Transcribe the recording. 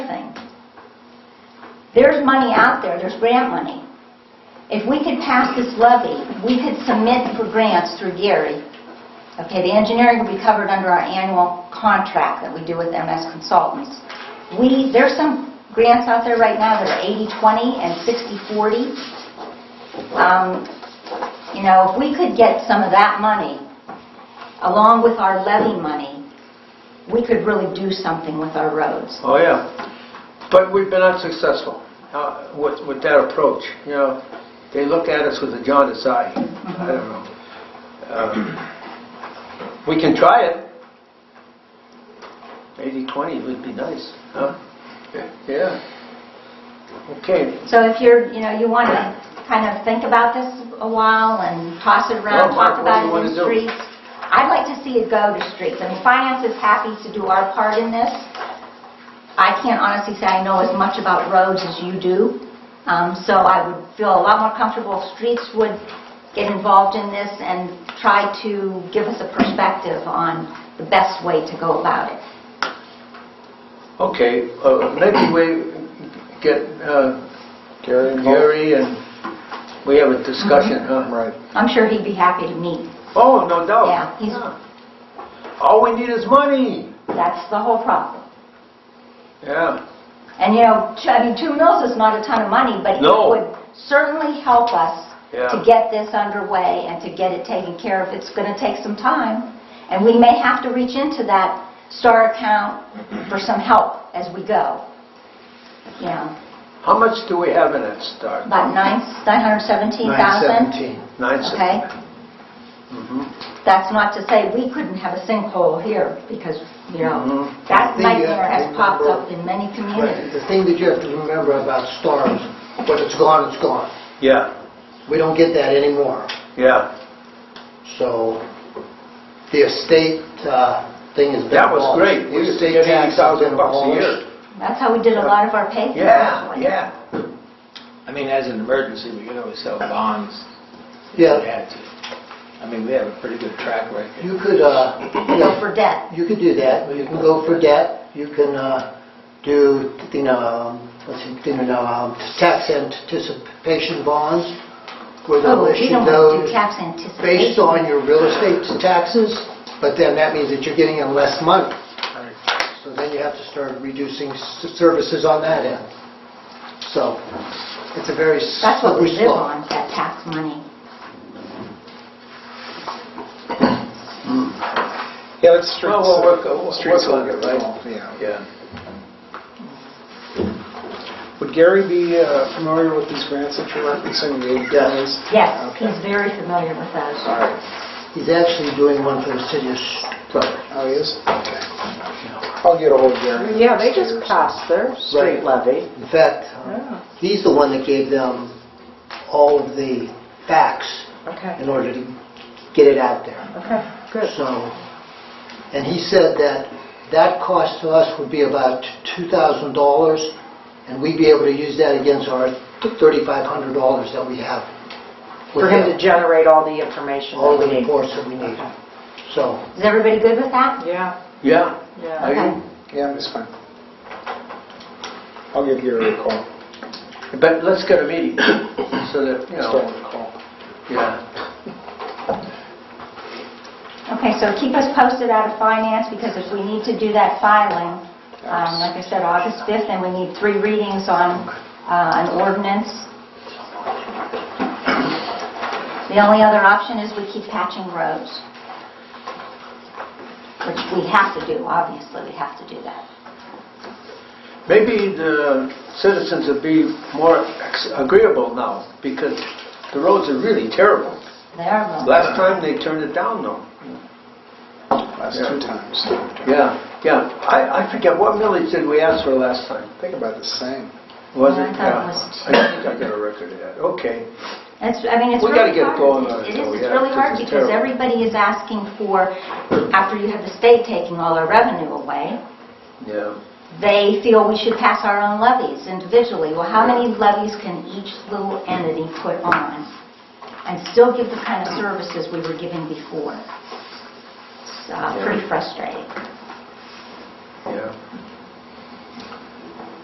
There's money out there, there's grant money. If we could pass this levy, we could submit for grants through Gary. Okay, the engineering will be covered under our annual contract that we do with MS Consultants. We, there's some grants out there right now that are 80/20 and 60/40. Um, You know, if we could get some of that money, along with our levy money, we could really do something with our roads. Oh, yeah. But we've been unsuccessful uh, with with that approach. You know, they look at us with a jaundiced eye. I don't know. Um, We can try it. 80/20 would be nice, huh? Yeah. Okay. So if you're, you know, you want to kind of think about this a while and toss it around, Well, Mark, talk what do about you it wanna in do? streets. I'd like to see it go to streets. I mean, finance is happy to do our part in this. I can't honestly say I know as much about roads as you do, Um, so I would feel a lot more comfortable if streets would get involved in this and try to give us a perspective on the best way to go about it. Okay, uh, maybe we get uh, Gary involved? Gary and we have a discussion, huh? Right. I'm sure he'd be happy to meet. Oh, no doubt. Yeah, he's- All we need is money. That's the whole problem. Yeah. And you know, t- I mean, two mils is not a ton of money, but it No. would certainly help us to Yeah. get this underway and to get it taken care of. It's going to take some time, and we may have to reach into that STAR account for some help as we go. You know, How much do we have in that start? about nine, 917,000, 9 okay? Mm-hmm. That's not to say we couldn't have a sinkhole here, because, you know, Mhm. that The, uh, nightmare has popped remember- up in many But communities. the thing that you have to remember about stars, when it's gone, it's gone. Yeah, We don't get that anymore. yeah. So the estate uh, thing has been abolished. That was great. The We used to estate get tax has been 80,000 bucks a year. abolished. That's how we did a lot of our paving. Yeah, actually. yeah. I mean, as an emergency, we can always sell bonds if we Yeah, had to. I mean, we have a pretty good track record. you could, uh, you Go know, for debt. you could do that. You can go for debt. You can uh, do, you know, um, let's see, you know, um, tax anticipation bonds, where Oh, they'll you issue don't want to those. do tax anticipation. based on your real estate taxes, but then that means that you're getting in less money. So then you have to start reducing s- services on that end. So it's a very That's what we slippery live slope. on, that tax money. Yeah, it's streets, Well, we'll work- uh, we'll streets work on it, right? Yeah. Yeah. Would Gary be uh, familiar with these grants that you're referencing, the eight counties? Yes, Okay. he's very familiar with those. All right. He's actually doing one for the city of Strasburg. Oh, he is? Okay. I'll get ahold of Gary. Yeah, they just passed their Right. street levy. In fact, uh, Yeah. he's the one that gave them all of the facts Okay, in order to get it out there. okay, good. So, and he said that that cost to us would be about $2,000, and we'd be able to use that against our $3,500 that we have. with For him to them, generate all the information All that the we need. reports that we need. Okay. So, Is everybody good with that? Yeah, Yeah. yeah. Are you? Yeah, that's fine. I'll give Gary a call. But let's get a meeting so that, you Start know, with a call. yeah. Okay, so keep us posted out of finance, because if we need to do that filing, um, like I said, August 5th, and we need three readings on uh, an ordinance. The only other option is we keep patching roads, which we have to do, obviously, we have to do that. Maybe the citizens would be more ex- agreeable now because the roads are really terrible. They are roads. Last time they turned it down though. Last Yeah. two times. Yeah, yeah. I, I forget, what millage did we ask for last time? I think about the same. Was Yeah, I it? thought it Yeah. was- I think I got a record of that. Okay. It's, I mean, it's We gotta really get going hard. on It it, is, though, it's yeah, really this hard is because terrible. everybody is asking for, after you have the state taking all our revenue away, Yeah. they feel we should pass our own levies individually. Well, how many levies can each little entity put on and still give the kind of services we were giving before? It's uh, pretty frustrating. Yeah.